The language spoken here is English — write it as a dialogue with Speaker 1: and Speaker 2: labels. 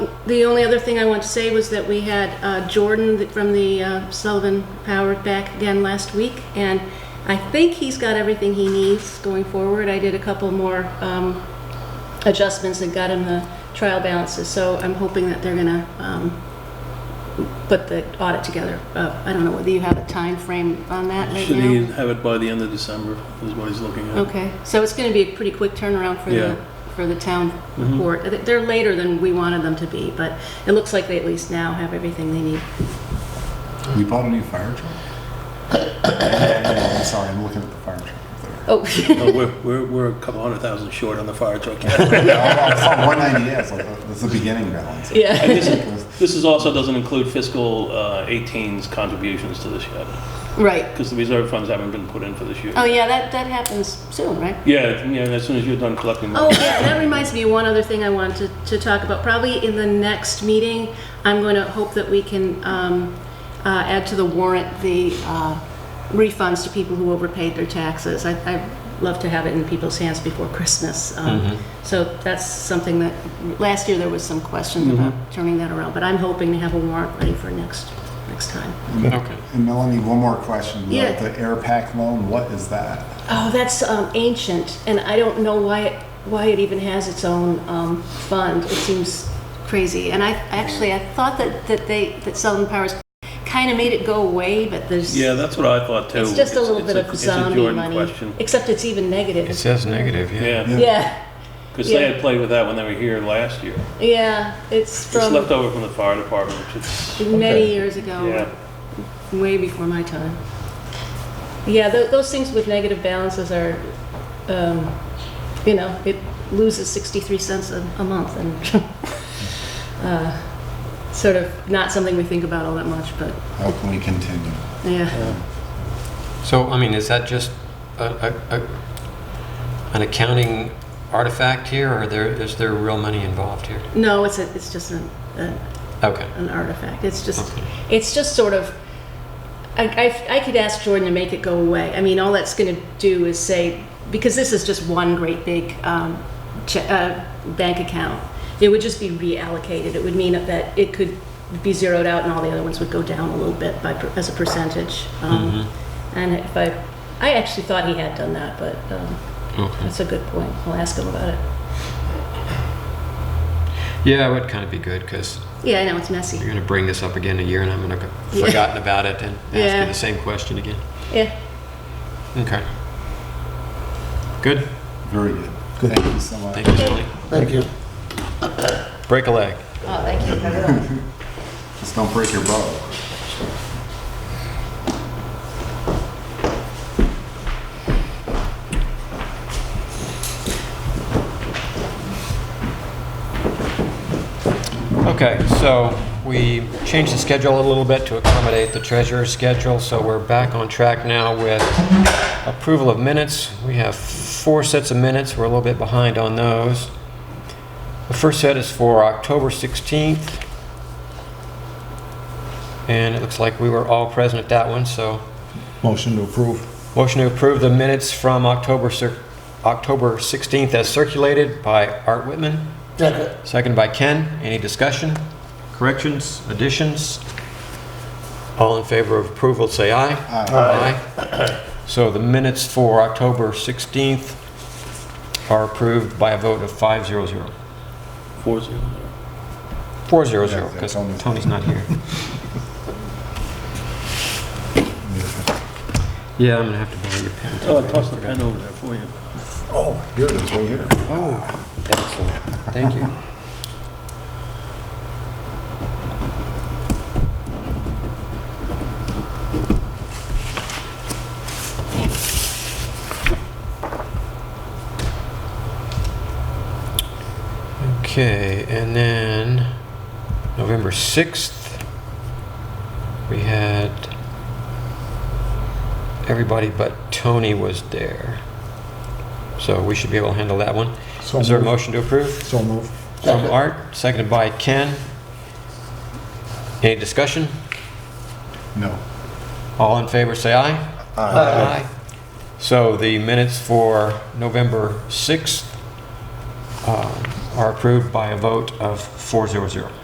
Speaker 1: The only other thing I want to say was that we had uh, Jordan th- from the uh, Sullivan Power back again last week, and I think he's got everything he needs going forward. I did a couple more um, adjustments and got him the trial balances, so I'm hoping that they're gonna um, put the audit together. Uh, I don't know whether you have a time frame on that right
Speaker 2: Should he
Speaker 1: now?
Speaker 2: have it by the end of December, is what he's looking at.
Speaker 1: Okay, so it's gonna be a pretty quick turnaround for
Speaker 2: Yeah.
Speaker 1: the, for the town report. Th- They're later than we wanted them to be, but it looks like they at least now have everything they need.
Speaker 3: You bought a new fire truck? I'm sorry, I'm looking at the fire truck. up
Speaker 1: Oh,
Speaker 2: No, we're, we're, we're a couple hundred thousand short on the fire truck. yet.
Speaker 3: there. I saw 198, I was like, "Oh, that's the beginning balance.
Speaker 1: yeah.
Speaker 2: And this, this is also doesn't include fiscal uh, 18's contributions to this yet,
Speaker 1: Right.
Speaker 2: because the reserve funds haven't been put in for this year.
Speaker 1: Oh, yeah, that, that happens soon, right?
Speaker 2: Yeah, yeah, and as soon as you're done collecting.
Speaker 1: Oh, yeah, and that reminds me of one other thing I wanted to, to talk about. Probably in the next meeting, I'm going to hope that we can um, uh, add to the warrant the uh, refunds to people who overpaid their taxes. I, I'd love to have it in people's hands before Christmas. Um, So that's something that, last year there was some questions about turning that around, but I'm hoping to have a warrant ready for next, next time.
Speaker 4: Okay.
Speaker 3: And Melanie, one more question. The-
Speaker 1: Yeah.
Speaker 3: The air pack loan, what is that?
Speaker 1: Oh, that's um, ancient, and I don't know why it, why it even has its own um, fund. It seems crazy. And I actually I thought that, that they that Southern Powers kind of made it go away, but there's
Speaker 2: Yeah, that's what I thought too.
Speaker 1: it's just a little
Speaker 2: it's
Speaker 1: bit of
Speaker 2: it's a
Speaker 1: zombie
Speaker 2: Jordan
Speaker 1: money.
Speaker 2: question.
Speaker 1: Except it's even negative.
Speaker 4: It says negative, yeah.
Speaker 2: Yeah,
Speaker 1: yeah,
Speaker 2: because they
Speaker 1: Yeah.
Speaker 2: had played with that when they were here last year.
Speaker 1: yeah, it's
Speaker 2: It's
Speaker 1: from Oh.
Speaker 2: left over from the fire department, which is,
Speaker 1: many
Speaker 3: Okay.
Speaker 1: years ago.
Speaker 2: yeah.
Speaker 1: way before my time. Yeah, tho- those things with negative balances are, um, you know, it loses 63 cents a, a month and uh, sort of not something we think about all that much, but
Speaker 3: How can we continue?
Speaker 1: yeah.
Speaker 4: So, I mean, is that just a, a, a, an accounting artifact here, or there, is there real money involved here?
Speaker 1: No, it's a, it's just an, an
Speaker 4: Okay.
Speaker 1: an artifact. It's just,
Speaker 4: Okay.
Speaker 1: it's just sort of. I, I, I could ask Jordan to make it go away. I mean, all that's going to do is say because this is just one great big um, che- uh, bank account. It would just be reallocated. It would mean that it could be zeroed out, and all the other ones would go down a little bit by per, as a percentage. Um, And if I, I actually thought he had done that, but um, that's a good point. I'll ask him about it.
Speaker 4: Yeah, it would kind of be good, because
Speaker 1: Yeah, I know it's
Speaker 4: you're
Speaker 1: messy.
Speaker 4: going to bring this up again in a year, and I'm going to have
Speaker 1: Yeah.
Speaker 4: forgotten about it and ask
Speaker 1: Yeah.
Speaker 4: you the same question again.
Speaker 1: Yeah.
Speaker 4: Okay. Good.
Speaker 3: Very good. Thank you so much.
Speaker 4: Thank you, Sally.
Speaker 5: Thank you.
Speaker 4: Break a leg.
Speaker 1: Oh, thank you. I will.
Speaker 3: Just don't break your bow.
Speaker 4: Okay, so we changed the schedule a little bit to accommodate the treasurer's schedule, so we're back on track now with approval of minutes. We have four sets of minutes, we're a little bit behind on those. The first set is for October 16th, and it looks like we were all present at that one, so
Speaker 3: Motion to approve.
Speaker 4: motion to approve the minutes from October cir- October 16th as circulated by Art Whitman.
Speaker 5: Second.
Speaker 4: Second by Ken. Any discussion, corrections, additions? All in favor of approval, say aye. Aye. So the minutes for October 16th are approved by a vote of 500.
Speaker 2: Four zero zero.
Speaker 4: 400,
Speaker 3: Yeah,
Speaker 4: because
Speaker 3: Tony's-
Speaker 4: Tony's not here. Yeah, I'm gonna have to borrow your pen.
Speaker 2: Oh, I tossed the pen over there for you.
Speaker 3: Oh, here it is, right here.
Speaker 4: Oh, excellent. Thank you. Okay, and then November 6th, we had everybody but Tony was there. So we should be able to handle that one.
Speaker 5: So
Speaker 4: Is there a
Speaker 5: moved.
Speaker 4: motion to approve?
Speaker 5: So move.
Speaker 4: From Art, seconded by Ken. Any discussion?
Speaker 3: No.
Speaker 4: All in favor, say aye. Aye. So the minutes for November 6th uh, are approved by a vote of 400.